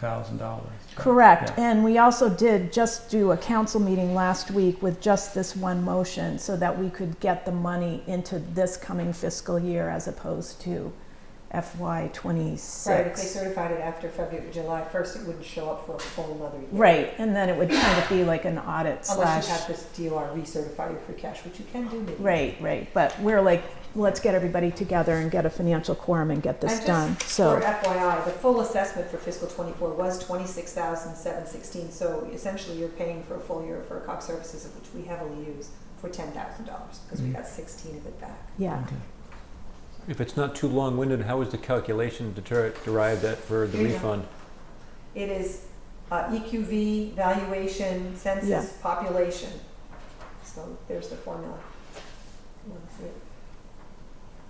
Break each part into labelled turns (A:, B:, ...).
A: thousand dollars.
B: Correct,
A: Yeah.
B: and we also did just do a council meeting last week with just this one motion so that we could get the money into this coming fiscal year as opposed to FY
C: Right, if they
B: twenty-six.
C: certified it after February, July first, it wouldn't show up for a full another year.
B: Right, and then it would kind of be like an audit
C: Unless you have
B: slash,
C: this DOR recertify your free cash, which you can do maybe.
B: right, right, but we're like, let's get everybody together and get a financial quorum and get
C: I'm
B: this
C: just-
B: done,
C: For
B: so,
C: FYI, the full assessment for fiscal twenty-four was twenty-six thousand seven sixteen, so essentially you're paying for a full year for cop services, of which we heavily use, for ten thousand dollars, because we
B: Mm-hmm.
A: Mhm.
C: got sixteen of it back.
B: yeah.
D: If it's not too long-winded, how is the calculation deter- derived at for the
C: Here you go.
D: refund?
C: It is uh, EQV, valuation,
B: Yeah.
C: census, population. So there's the formula. You wanna see it?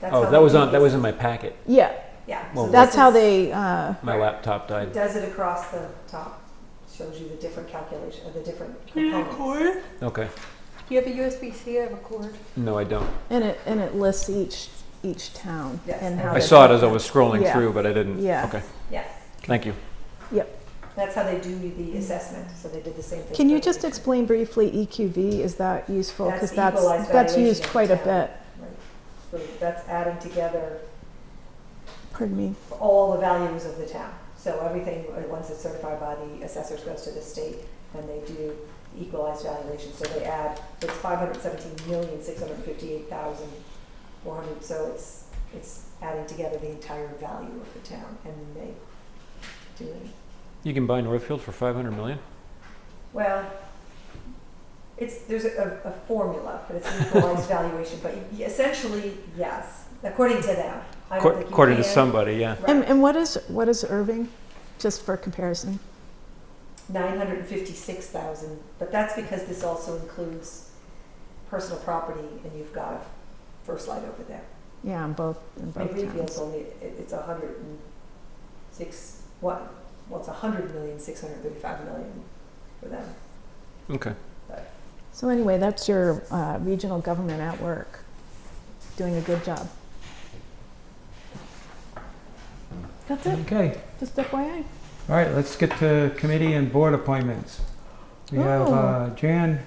C: That's
D: Oh,
C: how
D: that
C: they
D: was
C: do
D: on, that
C: this.
D: was in my packet.
B: Yeah,
C: Yeah.
D: Well,
C: so
B: that's
C: this
B: how
C: is-
B: they, uh,
D: My
C: Right.
D: laptop
C: It
D: died.
C: does it across the top, shows you the different calculation, or the different components.
D: Okay.
E: Do you have a USB-C? I have a cord.
D: No, I don't.
B: and it, and it lists each, each town
C: Yes.
B: and how.
D: I
B: they-
D: saw it as I was scrolling
B: Yeah.
D: through, but I didn't.
B: Yeah.
D: Okay.
C: Yes,
D: Thank you.
C: that's how they do the assessment, so they did the same thing.
B: Can you
C: for the
B: just
C: region.
B: explain briefly EQV? Is that useful? Because
C: That's
B: that's,
C: equalized
B: that's used
C: valuation of
B: quite a
C: town.
B: bit.
C: Right. So that's adding together
B: Pardon me.
C: all the values of the town. So everything, uh, once it's certified by the assessors, goes to the state, and they do equalized valuation. So they add, it's five hundred seventeen million, six hundred fifty-eight thousand, four hundred, so it's, it's adding together the entire value of the town, and then they do it.
D: You can buy Northfield for 500 million?
C: Well, it's, there's a, a formula, but it's an equalized valuation, but essentially, yes, according to them. I don't
D: Acco-
C: think you
D: According to
C: can-
D: somebody, yeah.
C: Right.
B: And, and what is, what is Irving, just for comparison?
C: 956,000, but that's because this also includes personal property and you've got a first light over there.
B: Yeah, in both, in
C: And
B: both
C: Greenfield's
B: towns.
C: only, it- it's 106, what, well, it's 100 million, 635 million for them.
D: Okay.
B: So anyway, that's your uh, regional government at work, doing a good job. That's it,
A: Okay,
B: just FYI.
A: all right, let's get to committee and board appointments. We have
B: Ooh.
A: uh, Jan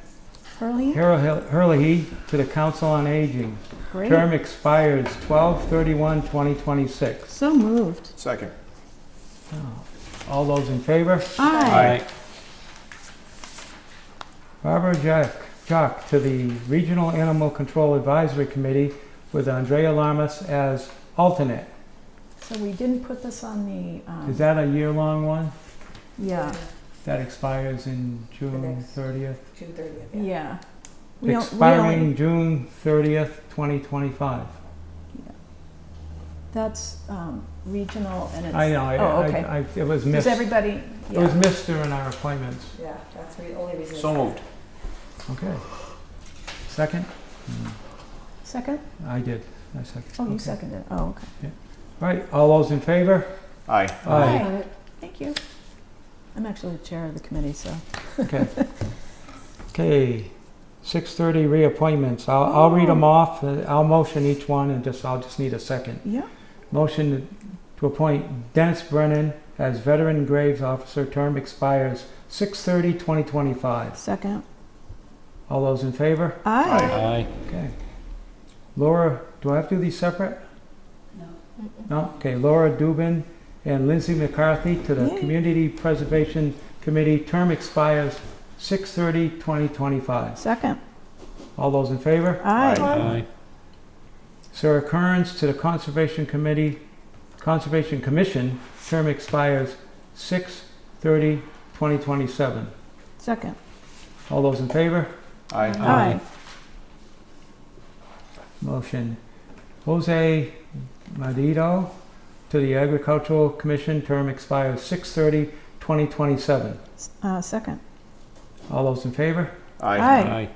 B: Early,
A: Hurley- Hurley to the Council on Aging.
B: great.
A: Term expires 12/31/2026.
B: So moved.
F: Second.
A: Oh. All those in favor?
B: Aye.
A: Barbara Jack, Jock to the Regional Animal Control Advisory Committee with Andrea Lamas as alternate.
B: So we didn't put this on the,
A: Is
B: um,
A: that a year-long one?
B: yeah,
A: That expires in June
C: next-
A: 30th?
C: June 30th. yeah.
B: yeah. We don't- we only-
A: expiring June 30th, 2025.
B: That's um, regional and it's.
A: I know, I,
B: Oh, okay.
A: I, I, it was
B: Does
A: missed, it
B: everybody? Yeah.
A: was missed during our appointments.
C: Yeah, that's the only reason.
F: So
C: it's-
F: moved.
A: Okay. Second?
B: Second?
A: I did, I seconded.
B: Oh, you
A: Okay.
B: seconded. Oh, okay.
A: All right, all those in favor?
F: Aye.
A: Aye.
B: Aye. Thank you. I'm actually the chair of the committee, so.
A: Okay. Okay, 6:30 reappointments. I'll, I'll read them
B: Oh.
A: off, uh, I'll motion each one and just, I'll just need a second.
B: Yeah.
A: Motion to appoint Dennis Brennan as Veteran Graves Officer, term expires 6/30/2025.
B: Second.
A: All those in favor?
B: Aye.
D: Aye.
A: Okay. Laura, do I have to do these separate? No? Okay, Laura Dubin and Lindsay McCarthy to the
B: Yay.
A: Community Preservation Committee. Term expires 6/30/2025.
B: Second.
A: All those in favor?
B: Aye.
D: Aye.
A: Sarah Kearns to the Conservation Committee, Conservation Commission. Term expires 6/30/2027.
B: Second.
A: All those in favor?
F: Aye.
B: Aye.
A: Motion. Jose Madito to the Agricultural Commission, term expires 6 2027
B: S- uh, Second.
A: All those in favor?
F: Aye.
D: Aye.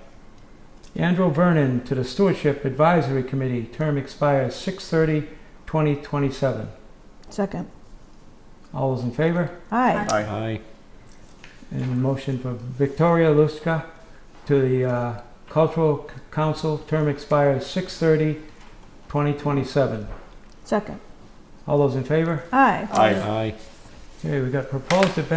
A: Andrew Vernon to the Stewardship Advisory Committee, term expires 6 2027
B: Second.
A: All those in favor?
B: Aye.
F: Aye.
D: Aye.
A: And motion for Victoria Luska to the uh, Cultural C- Council, term expires 6 2027
B: Second.
A: All those in favor?
B: Aye.
F: Aye.
D: Aye.
A: Okay, we got proposed event